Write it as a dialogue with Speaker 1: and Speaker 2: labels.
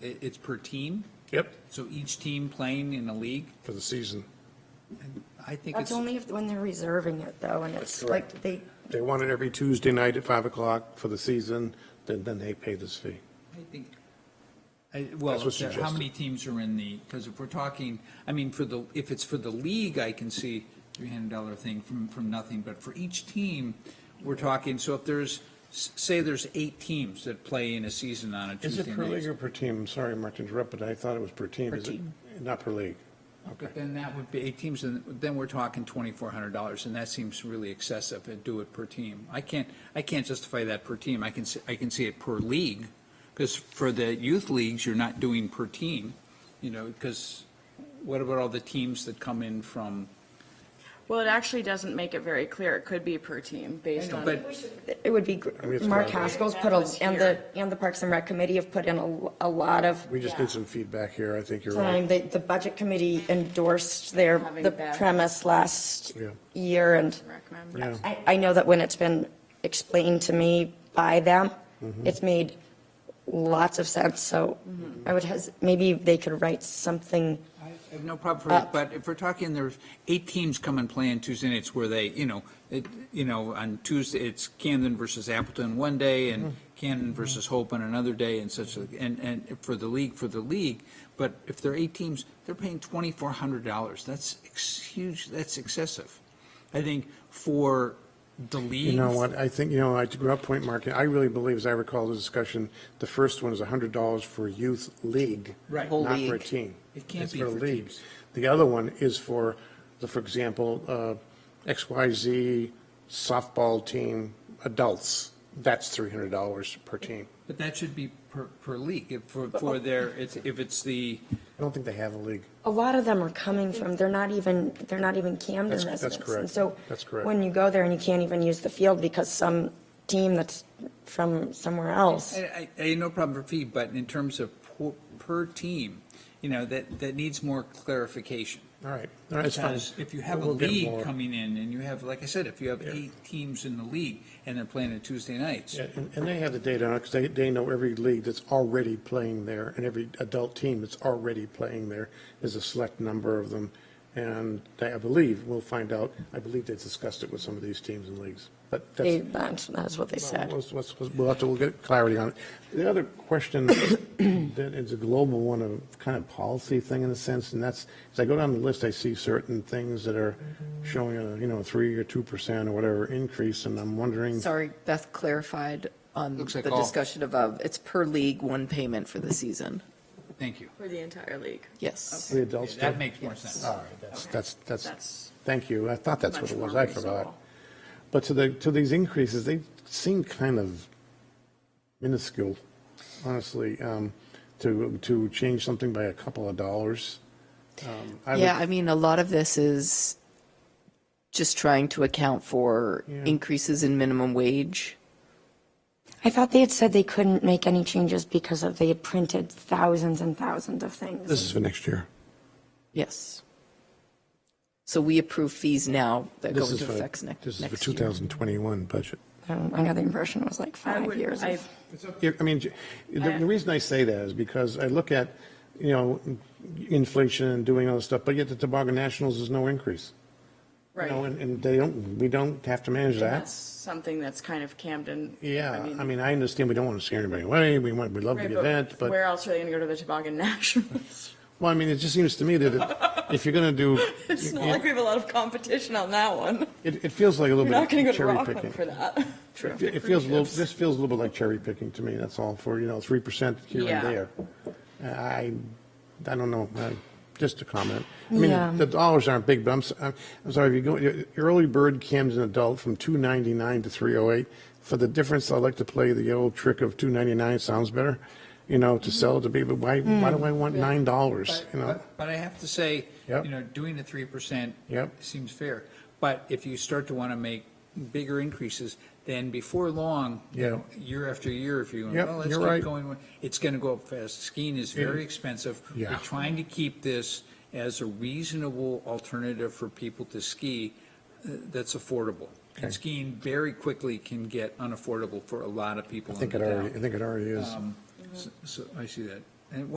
Speaker 1: it, it's per team?
Speaker 2: Yep,
Speaker 1: So each team playing in a league?
Speaker 2: for the season.
Speaker 1: I think it's,
Speaker 3: That's only if, when they're reserving it though, and it's like they,
Speaker 2: They want it every Tuesday night at 5 o'clock for the season, then, then they pay this fee.
Speaker 1: I think, I, well,
Speaker 2: That's what's
Speaker 1: there- how
Speaker 2: suggested.
Speaker 1: many teams are in the, because if we're talking, I mean, for the, if it's for the league, I can see three hundred dollar thing from, from nothing, but for each team, we're talking, so if there's, s- say there's eight teams that play in a season on a
Speaker 2: Is
Speaker 1: Tuesday
Speaker 2: it per
Speaker 1: night.
Speaker 2: league or per team? I'm Sorry, Mark, to interrupt, but I thought it was per team.
Speaker 1: Per
Speaker 2: Is it-
Speaker 1: team.
Speaker 2: Not per league.
Speaker 1: But then that would be eight teams, and then we're talking twenty-four hundred dollars, and that seems really excessive, and do it per team. I can't, I can't justify that per team, I can, see- I can see it per league, because for the youth leagues, you're not doing per team, you know, because what about all the teams that come in from,
Speaker 4: Well, it actually doesn't make it very clear. It could be per team based on.
Speaker 1: but
Speaker 3: it would be, gr-
Speaker 2: mean, it's
Speaker 3: Mark
Speaker 2: fine.
Speaker 3: Haskell's put a, and the, and the Parks and Rec Committee have put in a, a lot of
Speaker 2: We just need some feedback here. I think you're
Speaker 3: time.
Speaker 2: right.
Speaker 3: The, the Budget Committee endorsed their,
Speaker 4: Having
Speaker 3: the
Speaker 4: that.
Speaker 3: premise last
Speaker 2: Yeah.
Speaker 3: year and
Speaker 4: Rec members.
Speaker 2: Yeah.
Speaker 3: I, I know that when it's been explained to me by them,
Speaker 2: Mm-hmm.
Speaker 3: it's made lots of sense, so
Speaker 4: Mm-hmm.
Speaker 3: I would, has, maybe they could write something
Speaker 1: I have no problem for it, but if we're talking, there's eight teams come and play on Tuesday nights where they, you know, it, you know, on Tuesday, it's Camden versus Appleton one day and
Speaker 2: Mm-hmm.
Speaker 1: Camden versus Hope on another day and such, and, and for the league, for the league. But if there are eight teams, they're paying twenty-four hundred dollars. That's ex- huge, that's excessive. I think for the league.
Speaker 2: You know what? I think, you know, I grew up Point Market. I really believe, as I recall the discussion, the first one is $100 for youth league.
Speaker 1: Right. Whole
Speaker 2: Not for a
Speaker 1: league.
Speaker 2: team.
Speaker 1: It can't
Speaker 2: It's
Speaker 1: be
Speaker 2: a
Speaker 1: for
Speaker 2: league.
Speaker 1: teams.
Speaker 2: The other one is for, the for example, uh, XYZ softball team, adults. That's $300 per team.
Speaker 1: But that should be per, per league, if, for, for their, it's, if it's the,
Speaker 2: I don't think they have a league.
Speaker 3: a lot of them are coming from, they're not even, they're not even Camden
Speaker 2: That's-
Speaker 3: residents.
Speaker 2: that's correct.
Speaker 3: And so
Speaker 2: That's correct.
Speaker 3: When you go there and you can't even use the field because some team that's from somewhere else.
Speaker 1: I, I, I no problem for fee, but in terms of per, per team, you know, that, that needs more clarification.
Speaker 2: All right. All right, it's fine.
Speaker 1: Because if you have a
Speaker 2: We'll get
Speaker 1: league
Speaker 2: more.
Speaker 1: coming in and you have, like I said, if you have
Speaker 2: Yeah.
Speaker 1: eight teams in the league and they're playing on Tuesday nights,
Speaker 2: Yeah, and, and they have the data on it, because they, they know every league that's already playing there, and every adult team that's already playing there. There's a select number of them, and they, I believe, we'll find out, I believe they discussed it with some of these teams and leagues, but
Speaker 3: They,
Speaker 2: that's.
Speaker 3: that's, that's what they said.
Speaker 2: Let's- let's- let's- We'll have to, we'll get clarity on it. The other question that is a global one, a kind of policy thing in a sense, and that's, as I go down the list, I see certain things that are showing a, you know, three or two percent or whatever increase, and I'm wondering.
Speaker 5: Sorry, Beth clarified on
Speaker 1: Looks like
Speaker 5: the
Speaker 1: all.
Speaker 5: discussion above. It's per league, one payment for the season.
Speaker 1: thank you.
Speaker 4: For the entire league.
Speaker 5: Yes.
Speaker 2: The adults. do.
Speaker 1: That makes more sense.
Speaker 2: All right, that's, that's, that's,
Speaker 4: That's
Speaker 2: thank you. I thought that's what
Speaker 4: much
Speaker 2: it was.
Speaker 4: more
Speaker 2: I forgot.
Speaker 4: reasonable.
Speaker 2: But to the, to these increases, they seem kind of minuscule, honestly, um, to, to change something by a couple of dollars. Um, I would-
Speaker 5: Yeah, I mean, a lot of this is just trying to account for increases in minimum wage.
Speaker 3: I thought they had said they couldn't make any changes because of, they had printed thousands and thousands of things.
Speaker 2: This is for next year.
Speaker 5: Yes. So we approve fees now that go
Speaker 2: This is
Speaker 5: into
Speaker 2: for,
Speaker 5: effects next,
Speaker 2: this is for
Speaker 5: next year.
Speaker 2: 2021 budget.
Speaker 3: Um, I got the impression it was like
Speaker 4: I
Speaker 3: five
Speaker 4: would,
Speaker 3: years.
Speaker 4: I,
Speaker 3: of-
Speaker 2: Yeah, I mean, j- the, the reason I say that is because I look at, you know, inflation and doing all this stuff, but yet the Toboggan Nationals is no increase. You know,
Speaker 4: right.
Speaker 2: and, and they don't, we don't have to manage
Speaker 4: That's
Speaker 2: that.
Speaker 4: something that's kind of Camden.
Speaker 2: Yeah, I mean, I understand we don't want to scare anybody away, we want, we love
Speaker 4: Right,
Speaker 2: the event,
Speaker 4: Where
Speaker 2: but,
Speaker 4: else are they going to go to the Toboggan Nationals?
Speaker 2: well, I mean, it just seems to me that it- if you're going to do,
Speaker 4: It's not like we
Speaker 2: it,
Speaker 4: have a lot of competition on that one.
Speaker 2: it feels like a
Speaker 4: You're
Speaker 2: little
Speaker 4: not going
Speaker 2: bit
Speaker 4: to go to
Speaker 2: cherry
Speaker 4: Rockland for
Speaker 2: picking.
Speaker 4: that.
Speaker 2: It fe- it feels a little, this feels a little bit like cherry picking to me, that's all, for, you know, 3% here
Speaker 4: Yeah.
Speaker 2: and there. I, I don't know, uh, just a comment. I mean,
Speaker 3: Yeah.
Speaker 2: the dollars aren't big, but I'm, s- I'm I'm sorry, if you go, your early bird Camden adult from 299 to 308, for the difference, I like to play the old trick of 299, sounds better, you know, to sell it to people, why, why do I want $9, you know?
Speaker 1: But- But I have to say,
Speaker 2: Yep.
Speaker 1: you know, doing the three percent
Speaker 2: Yep.
Speaker 1: seems fair. But if you start to want to make bigger increases, then before long, you
Speaker 2: Yeah.
Speaker 1: know, year after year, if you,
Speaker 2: Yep,
Speaker 1: well, let's
Speaker 2: you're
Speaker 1: keep
Speaker 2: right.
Speaker 1: going, with- it's going to go up fast. Skiing is very expensive.
Speaker 2: Yeah.
Speaker 1: We're trying to keep this as a reasonable alternative for people to ski uh, that's affordable.
Speaker 2: Okay.
Speaker 1: And skiing very quickly can get unaffordable for a lot of people
Speaker 2: I
Speaker 1: in
Speaker 2: think
Speaker 1: the
Speaker 2: it already, I
Speaker 1: town.
Speaker 2: think it already is.
Speaker 1: Um, so- So I see that. And